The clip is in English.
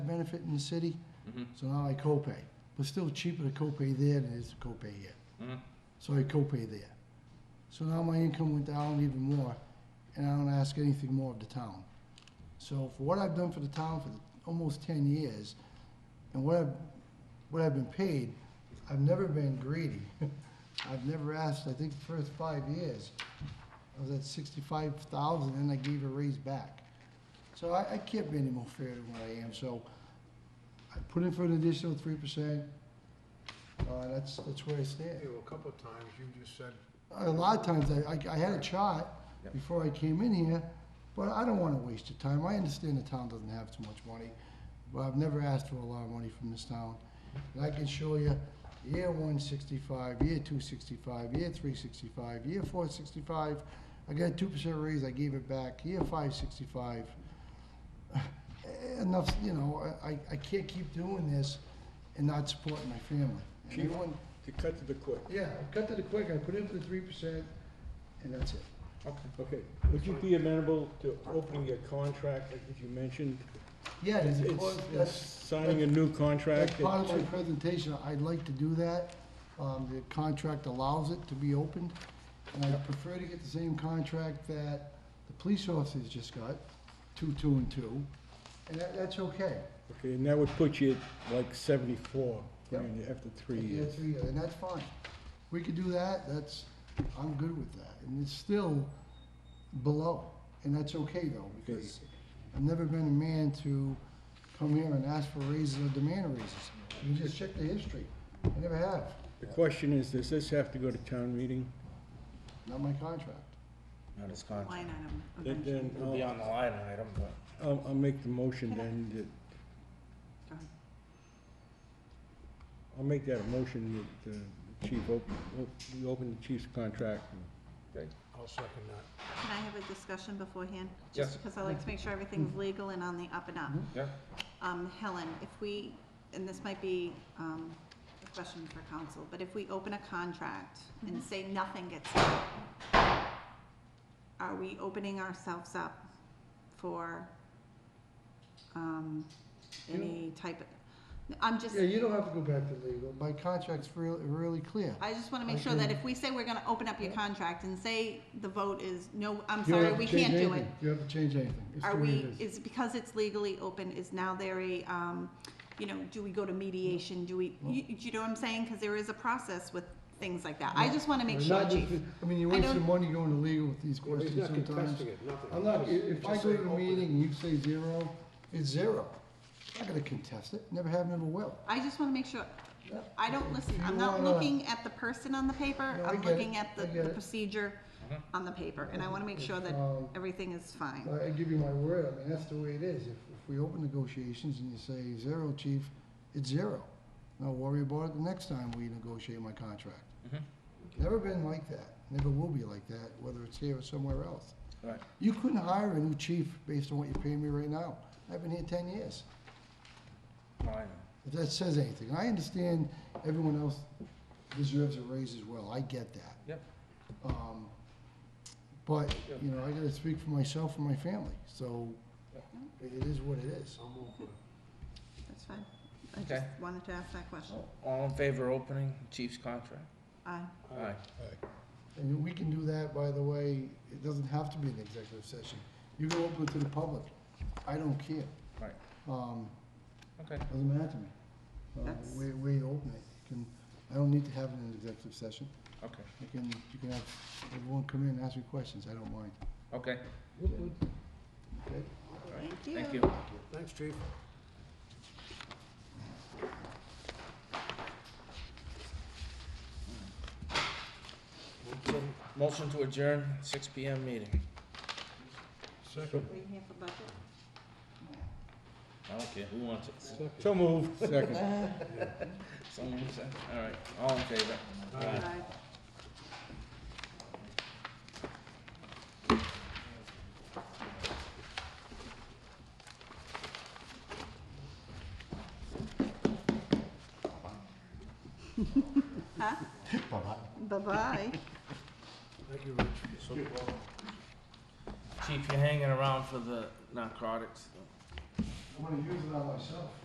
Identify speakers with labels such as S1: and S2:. S1: benefit in the city,
S2: Mhm.
S1: so now I copay. But still cheaper to copay there than it is to copay here.
S2: Mhm.
S1: So I copay there. So now my income went down even more, and I don't ask anything more of the town. So for what I've done for the town for almost ten years, and what I've, what I've been paid, I've never been greedy. I've never asked, I think the first five years, I was at sixty-five thousand, and I gave a raise back. So I, I can't be any more fair than what I am, so I put in for an additional three percent. Uh, that's, that's where I stand.
S3: You know, a couple of times you just said,
S1: A lot of times, I, I- I had a chart
S2: Yep.
S1: before I came in here, but I don't wanna waste your time. I understand the town doesn't have too much money, but I've never asked for a lot of money from this town. And I can show you, year one sixty-five, year two sixty-five, year three sixty-five, year four sixty-five. I got a two percent raise, I gave it back, year five sixty-five. Enough, you know, I, I- I can't keep doing this and not supporting my family. And
S4: Chief,
S1: everyone-
S4: To cut to the quick,
S1: yeah, I cut to the quick, I put in for the three percent, and that's it.
S4: okay, would you be amenable to opening a contract, like you mentioned?
S1: Yeah, it's,
S4: It's- it's Signing a new
S1: that's
S4: contract?
S1: part of my presentation, I'd like to do that, um, the contract allows it to be opened, and I prefer to get the same contract that the police officers just got, two, two, and two, and that, that's okay.
S4: Okay, and that would put you at like seventy-four, I
S1: Yep.
S4: mean, after three
S1: Yeah,
S4: years.
S1: three, And that's fine. We could do that, that's, I'm good with that. And it's still below, and that's okay though, because I've never been a man to come here and ask for raises or demand raises. You just check the history. I never have,
S4: The question is, does this have to go to town meeting?
S1: not my contract.
S2: Not his contract.
S5: line item
S4: Then,
S5: eventually.
S4: then
S2: It'll be
S4: I'll,
S2: on the line item, but.
S4: I'll, I'll make the motion then, that,
S5: Go ahead.
S4: I'll make that a motion that uh, the chief open, op- we open the chief's contract.
S3: I'll second that.
S5: Can I have a discussion beforehand?
S2: Yes.
S5: Just because I like to make sure everything's legal and on the up and up.
S2: Yeah.
S5: Um, Helen, if we, and this might be, um, a question for council, but if we open a contract and say nothing gets done, are we opening ourselves up for, um, any type of, I'm just,
S1: Yeah, you don't have to go back to legal. My contract's real, really clear.
S5: I just wanna make
S1: I
S5: sure that
S1: agree.
S5: if we say we're gonna open up your contract and say the vote is, no, I'm
S1: You don't
S5: sorry,
S1: have to
S5: we
S1: change
S5: can't do it.
S1: anything. You don't have to change anything. It's
S5: Are
S1: the way
S5: we,
S1: it is.
S5: is, because it's legally open, is now there a, um, you know, do we go to mediation, do we, you, you know what I'm saying? Cause there is a process with things like that, I just wanna make
S1: We're
S5: sure,
S1: not
S5: chief.
S1: just- I mean, you
S5: I
S1: waste
S5: don't-
S1: your money going to legal with these
S3: Well, he's
S1: questions
S3: not
S1: sometimes.
S3: contesting it, nothing.
S1: I'm not, i-
S3: Just-
S1: if I
S3: just
S1: go
S3: say
S1: to a
S3: open it.
S1: meeting and you say zero, it's zero. I'm not gonna contest it, never have, never will.
S5: I just wanna make sure,
S1: Yeah.
S5: I don't, listen,
S1: If you
S5: I'm not
S1: wanna-
S5: looking at the person on the paper,
S1: No, I
S5: I'm
S1: get it,
S5: looking at the,
S1: I get
S5: the
S1: it.
S5: procedure on the paper, and I wanna make sure that
S1: Um,
S5: everything is fine.
S1: I I give you my word, I mean, that's the way it is. If, if we open negotiations and you say zero, chief, it's zero. Now worry about it the next time we negotiate my contract.
S2: Mhm.
S1: Never been like that, never will be like that, whether it's here or somewhere else.
S2: Right.
S1: You couldn't hire a new chief based on what you're paying me right now. I've been here ten years.
S2: Line.
S1: if that says anything. And I understand everyone else deserves a raise as well, I get that.
S2: Yep.
S1: Um, But,
S2: Yep.
S1: you know, I gotta speak for myself and my family, so
S2: Yep.
S1: it is what it is.
S3: I'll move for it.
S5: That's fine, I just
S2: Okay.
S5: wanted to ask that question,
S1: Oh.
S2: All in favor of opening Chief's contract?
S5: aye.
S2: Aye.
S1: And we can do that, by the way, it doesn't have to be an executive session. You can open it to the public, I don't care.
S2: Right.
S1: Um,
S2: Okay.
S1: doesn't matter to me. Uh,
S5: That's-
S1: way, way you open it, You can, I don't need to have it in an executive session.
S2: Okay.
S1: You can, you can have everyone come in and ask me questions, I don't mind.
S2: Okay.
S1: Okay?
S2: Thank you.
S3: Thanks, chief.
S2: Motion- Motion to adjourn, six P M meeting.
S3: Second,
S5: Waiting here for budget?
S2: I don't care who wants it.
S4: So moved, second.
S2: Someone say, all right, all in favor? Aye.
S5: Aye. Huh? Bye-bye.
S3: thank you, Rich.
S2: Chief, you're hanging around for the narcotics.
S1: I'm gonna use it on myself.